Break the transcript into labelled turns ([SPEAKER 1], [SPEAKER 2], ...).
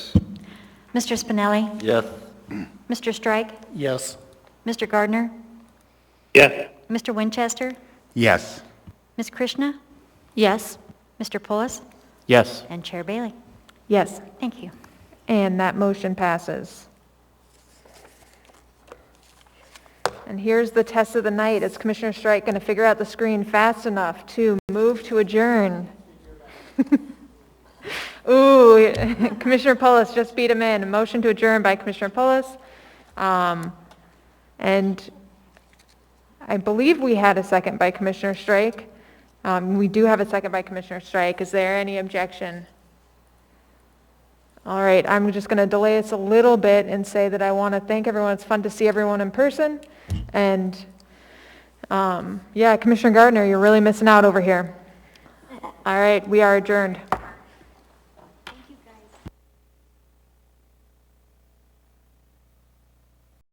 [SPEAKER 1] Mr. Spinelli?
[SPEAKER 2] Yes.
[SPEAKER 1] Mr. Strike?
[SPEAKER 3] Yes.
[SPEAKER 1] Mr. Gardner?
[SPEAKER 2] Yes.
[SPEAKER 1] Mr. Winchester?
[SPEAKER 4] Yes.
[SPEAKER 1] Ms. Krishna? Yes. Mr. Pulis?
[SPEAKER 2] Yes.
[SPEAKER 1] And Chair Bailey?
[SPEAKER 5] Yes,
[SPEAKER 1] Thank you.
[SPEAKER 5] and that motion passes. And here's the test of the night. Is Commissioner Strike going to figure out the screen fast enough to move to adjourn? Ooh, Commissioner Polis just beat him in. A motion to adjourn by Commissioner Polis. Um, And I believe we had a second by Commissioner Strike. Um, We do have a second by Commissioner Strike. Is there any objection? All right, I'm just going to delay us a little bit and say that I want to thank everyone. It's fun to see everyone in person. And, um, yeah, Commissioner Gardner, you're really missing out over here. All right, we are adjourned.